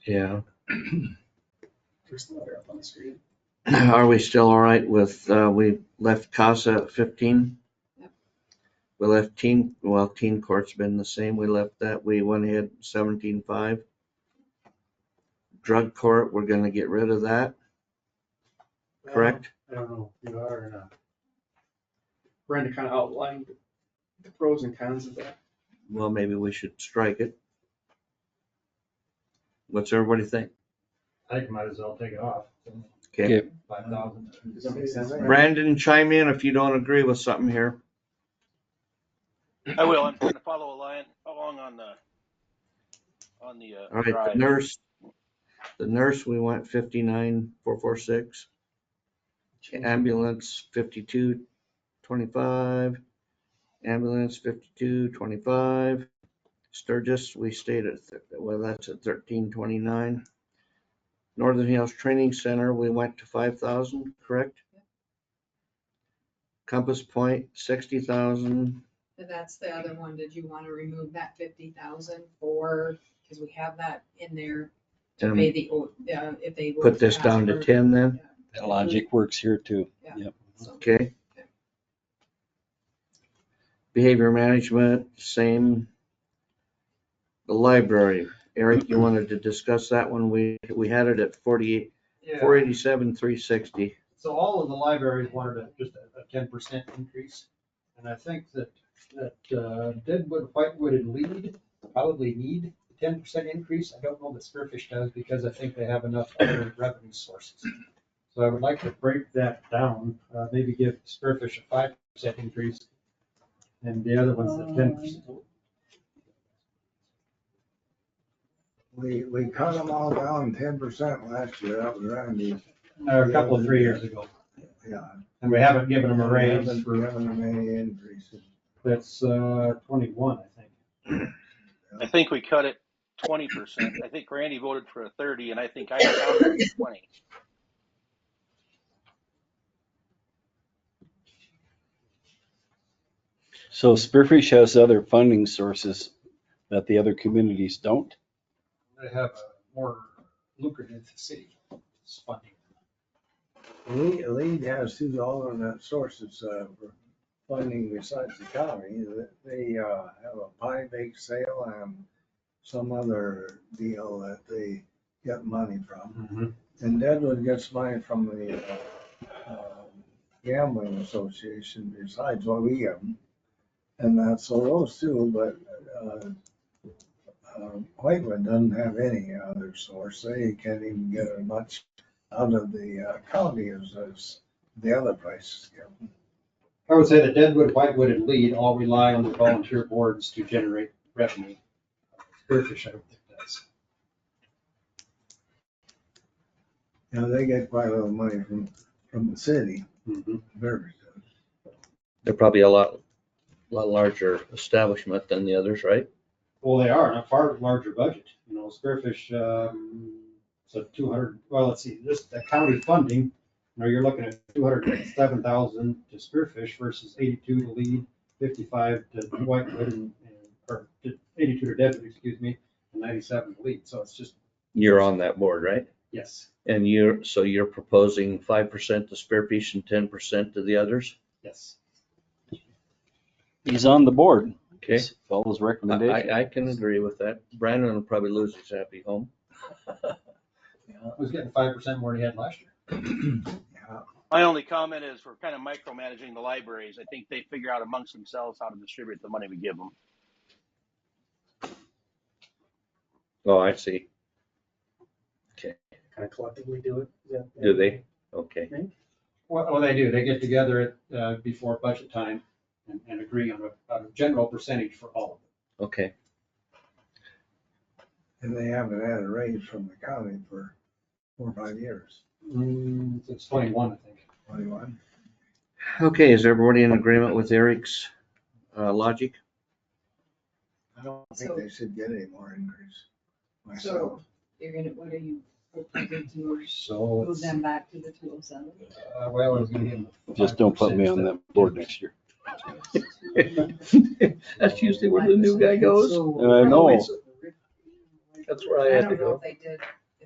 Yeah. There's the letter up on the screen. Are we still all right with, uh, we left CASA at fifteen? Yep. We left teen, well, teen court's been the same. We left that. We went ahead seventeen five. Drug court, we're gonna get rid of that, Uh-huh. correct? I don't know if you are or not. Brenda kind of outlined the pros and cons of that. Well, maybe we should strike it. What's everybody think? I think might as well take it off. Okay, Five thousand. Does that make sense? Brandon, chime in if you don't agree with something here. I will. I'm trying to follow a line along on the, on the, uh, All right, the drive. nurse, the nurse, we went fifty-nine, four, four, six. Ambulance fifty-two, twenty-five. Ambulance fifty-two, twenty-five. Sturgis, we stayed at, thir- well, that's at thirteen, twenty-nine. Northern Hills Training Center, we went to five thousand, correct? Compass Point, sixty thousand. And that's the other one, did you wanna remove that fifty thousand for, cause we have that in there to pay the, o- uh, if they. were Put this ask down to for- ten then, That logic works here too. So, okay? Behavior management, same. The library, Eric, you wanted to discuss that one, we, we had it at forty-eight, four Yeah, eighty-seven, three sixty. so all of the libraries wanted a, just a- a ten percent increase. And I think that, that uh, Deadwood, Whitewood and Lead probably need a ten percent increase. I don't know that Spearfish does because I think they have enough other revenue sources. So I would like to break that down, uh, maybe give Spearfish a five percent increase and the other ones at ten percent. We, we cut them all down ten percent last year, that was Randy's. A couple of three years ago. Yeah. And we haven't given them a raise Haven't for, given them any increases. that's uh, twenty-one, I think. I think we cut it twenty percent. I think Randy voted for a thirty and I think I counted it at twenty. So Spearfish has other funding sources that the other communities don't. They have a more lucrative city funding. Lead, lead has two alternate sources uh, for funding besides the county. They uh, have a pie bake sale and some other deal that they get money from. And Deadwood gets money from the uh, uh, gambling association besides what we give them. And that's so those two, but uh, uh, Whitewood doesn't have any other source. They can't even get as much out of the uh, county as, as the other places give. them. I would say that Deadwood, Whitewood, and Lead all rely on the volunteer boards to generate revenue. Spearfish, I don't think does. You know, they get quite a lot of money from, from the city, very good. They're probably a lot, lot larger establishment than the others, right? Well, they are, and a far larger budget, you know, Spearfish, um, so two hundred, well, let's see, this, the county funding, you know, you're looking at two hundred and seven thousand to Spearfish versus eighty-two to Lead, fifty-five to Whitewood, and, and- or to- eighty-two to Deadwood, excuse me, and ninety-seven to Lead, so it's just, You're on that board, right? yes, And you're, so you're proposing five percent to Spearfish and ten percent to the others? yes. He's on the board. Okay, Follows I, recommendation. I- I can agree with that. Brandon will probably lose his happy home. It was getting five percent more than he had last year. Yeah. My only comment is we're kind of micromanaging the libraries. I think they figure out amongst themselves how to distribute the money we give them. Oh, I see. Kind of collectively do it. Is that- Do they? Okay. Well, well, they do, they get together at, uh, before budget time and, and agree on a, on a general percentage for all of them. Okay, And they haven't had a raise from the county for four or five years. Mm, It's twenty-one, I think. Twenty-one. okay, is everybody in agreement with Eric's uh, logic? I don't think they should get any more increase myself. So, you're gonna, what are you, proposing to So, move them back to the two oh seven? uh, well, it's gonna be. Just don't put me on that board next year. That's usually where the new guy goes. And I know, that's where I I had to don't know go. if they did